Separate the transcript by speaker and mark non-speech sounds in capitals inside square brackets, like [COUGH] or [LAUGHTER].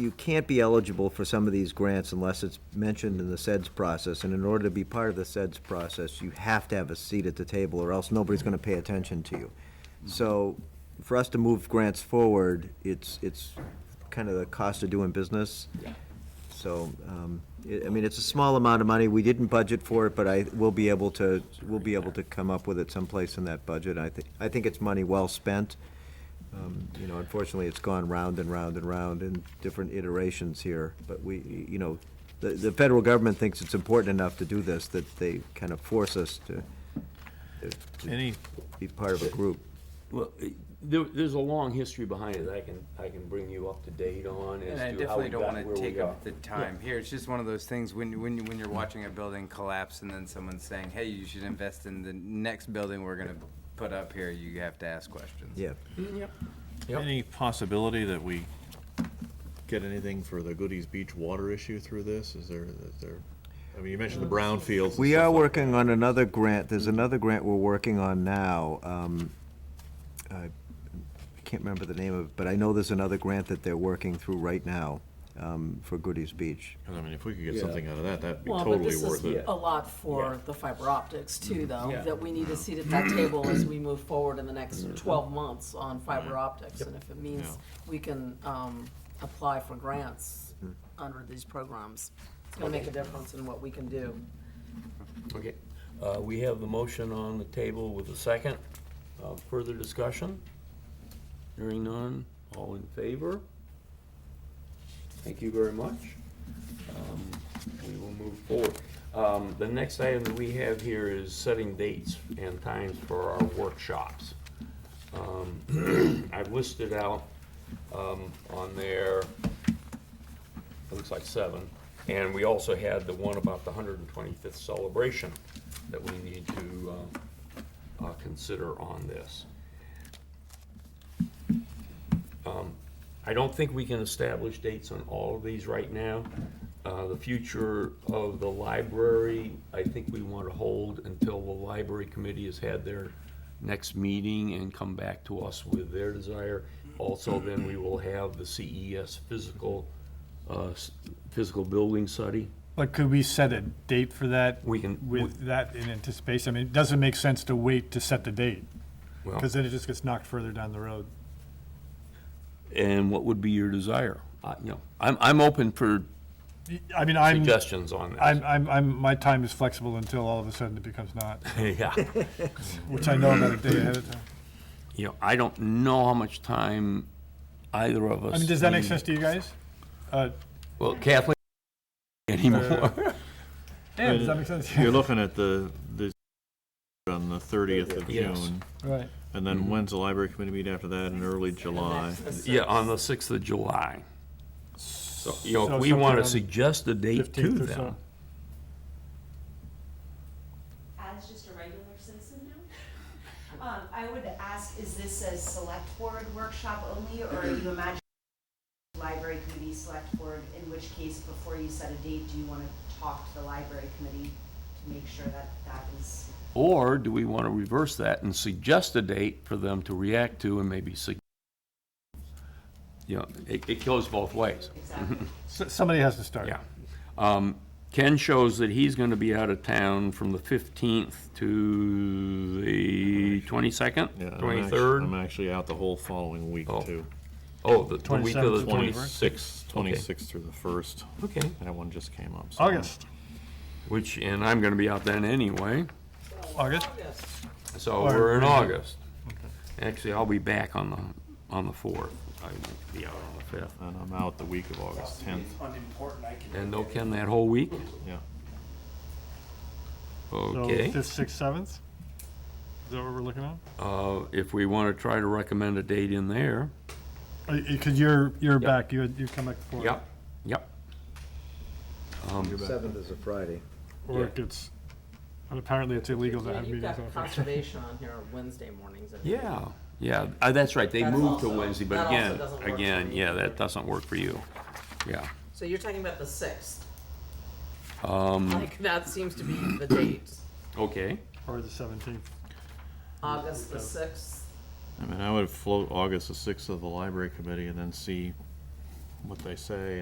Speaker 1: you can't be eligible for some of these grants unless it's mentioned in the SEDS process, and in order to be part of the SEDS process, you have to have a seat at the table, or else nobody's gonna pay attention to you. So, for us to move grants forward, it's, it's kind of the cost of doing business. So, um, I I mean, it's a small amount of money, we didn't budget for it, but I, we'll be able to, we'll be able to come up with it someplace in that budget, I think, I think it's money well spent. Um, You know, unfortunately, it's gone round and round and round in different iterations here, but we, you know, the, the federal government thinks it's important enough to do this that they kind of force us to
Speaker 2: Any,
Speaker 1: be part of a group.
Speaker 3: Well, it- there, there's a long history behind it, I can, I can bring you up to date on as
Speaker 4: And
Speaker 3: to
Speaker 4: I
Speaker 3: how we
Speaker 4: definitely don't
Speaker 3: got
Speaker 4: want
Speaker 3: where
Speaker 4: to
Speaker 3: we
Speaker 4: take
Speaker 3: are.
Speaker 4: up the time here. It's just one of those things when, when, when you're watching a building collapse and then someone's saying, hey, you should invest in the next building we're going to put up here, you have to ask questions.
Speaker 1: Yeah,
Speaker 3: Yep.
Speaker 2: any possibility that we get anything for the Goodies Beach water issue through this? Is there, is there, I mean, you mentioned the brownfields. and
Speaker 1: we
Speaker 2: stuff
Speaker 1: are
Speaker 2: like
Speaker 1: working on another grant, there's another grant we're working on now. Um, I can't remember the name of, it, but I know there's another grant that they're working through right now um, for Goodies Beach.
Speaker 2: 'Cause, I mean, if we could get
Speaker 3: Yeah.
Speaker 2: something out of that, that'd be
Speaker 5: Well, but
Speaker 2: totally
Speaker 5: this
Speaker 2: worth
Speaker 5: is
Speaker 2: it.
Speaker 5: a lot for
Speaker 3: Yeah.
Speaker 5: the fiber optics too,
Speaker 6: Mm-hmm.
Speaker 5: though,
Speaker 3: Yeah.
Speaker 5: that we need a seat at that table as we move forward in the next
Speaker 6: Mm-hmm.
Speaker 5: twelve months on fiber optics. And if it means we can, um, apply for grants
Speaker 6: Mm-hmm.
Speaker 5: under these programs, it's gonna make a difference in what we can do.
Speaker 3: Okay, uh, we have the motion on the table with a second. Uh, Further discussion? Hearing none, all in favor? Thank you very much. Um, We will move forward. Um, The next item that we have here is setting dates and times for our workshops. Um, [CLEARS THROAT] I've listed out um, on there, it looks like seven. And we also had the one about the 125th celebration that we need to uh, uh, consider on this. Um, I don't think we can establish dates on all of these right now. Uh, The future of the library, I think we want to hold until the library committee has had their next meeting and come back to us with their desire. Also, then we will have the CES physical, uh, s- physical building study.
Speaker 6: Like, could we set a date for that?
Speaker 3: We can-
Speaker 6: With that in anticipation? I mean, it doesn't make sense to wait to set the date,
Speaker 3: Well,
Speaker 6: because then it just gets knocked further down the road.
Speaker 3: And what would be your desire? I- You know, I'm, I'm open for
Speaker 6: I mean, I'm,
Speaker 3: suggestions on this.
Speaker 6: I'm, I'm, I'm, my time is flexible until all of a sudden it becomes not,
Speaker 3: [LAUGHS] Yeah.
Speaker 6: which I know about a day ahead of time.
Speaker 3: You know, I don't know how much time either of us.
Speaker 6: I mean, does that make
Speaker 3: need.
Speaker 6: sense to you guys? Uh,
Speaker 3: Well, Kathleen, [LAUGHS] anymore.
Speaker 6: Dan, does that make sense?
Speaker 2: You're
Speaker 6: [LAUGHS]
Speaker 2: looking at the, the, on the thirtieth of
Speaker 3: Yes.
Speaker 2: June,
Speaker 6: Right.
Speaker 2: and then when's the library committee meet after that, in early July?
Speaker 3: [LAUGHS] Yeah, on the sixth of July. So, you know,
Speaker 6: So
Speaker 3: if we want to
Speaker 6: sometime
Speaker 3: suggest a date to
Speaker 6: 15th or
Speaker 3: them,
Speaker 6: so.
Speaker 7: as just a regular citizen now, um, I would ask, is this a select board workshop only, or are you imagining library committee, select board, in which case, before you set a date, do you wanna talk to the library committee to make sure that that is
Speaker 3: or do we want to reverse that and suggest a date for them to react to and maybe sug- you know, it, it goes both ways.
Speaker 7: exactly?
Speaker 6: S- Somebody has to start.
Speaker 3: Yeah. Um, Ken shows that he's going to be out of town from the 15th to the 22nd,
Speaker 2: Yeah, I'm actu-
Speaker 3: 23rd.
Speaker 2: I'm actually out the whole following week,
Speaker 3: Oh.
Speaker 2: too.
Speaker 3: Oh, the the week of
Speaker 6: 27th
Speaker 3: the
Speaker 6: to
Speaker 3: 26th. okay.
Speaker 2: Twenty-sixth through the first,
Speaker 3: Okay,
Speaker 2: that one just came up. so-
Speaker 6: August,
Speaker 3: which, and I'm going to be out then anyway,
Speaker 6: August?
Speaker 3: so
Speaker 6: Or-
Speaker 3: we're in August. Actually, I'll be back on the, on the 4th. I won't be out on the 5th.
Speaker 2: And I'm out the week of August tenth,
Speaker 3: And no Ken that whole week?
Speaker 2: yeah.
Speaker 3: Okay.
Speaker 6: So fifth, sixth, seventh? Is that what we're looking at?
Speaker 3: Uh, If we want to try to recommend a date in there.
Speaker 6: Because Uh, you're, you're back, you, had- you come back before.
Speaker 3: Yep, yep.
Speaker 1: Um, Seventh is a Friday.
Speaker 6: Or
Speaker 3: Yeah.
Speaker 6: it gets, and apparently it's illegal to have
Speaker 5: You've
Speaker 6: meetings on
Speaker 5: got
Speaker 6: Friday.
Speaker 5: conservation on here on Wednesday mornings. I think.
Speaker 3: Yeah, yeah, uh, that's right, they
Speaker 5: That's
Speaker 3: moved to
Speaker 5: also-
Speaker 3: Wednesday,
Speaker 5: that
Speaker 3: but
Speaker 5: also
Speaker 3: again,
Speaker 5: doesn't work for
Speaker 3: again,
Speaker 5: me.
Speaker 3: yeah, that doesn't work for you. Yeah,
Speaker 5: So you're talking about the sixth,
Speaker 3: um,
Speaker 5: like, that seems to be the date,
Speaker 6: [COUGHS]
Speaker 3: okay,
Speaker 6: Or the seventeenth.
Speaker 5: August the sixth.
Speaker 2: I mean, I would float August the sixth of the library committee and then see what they say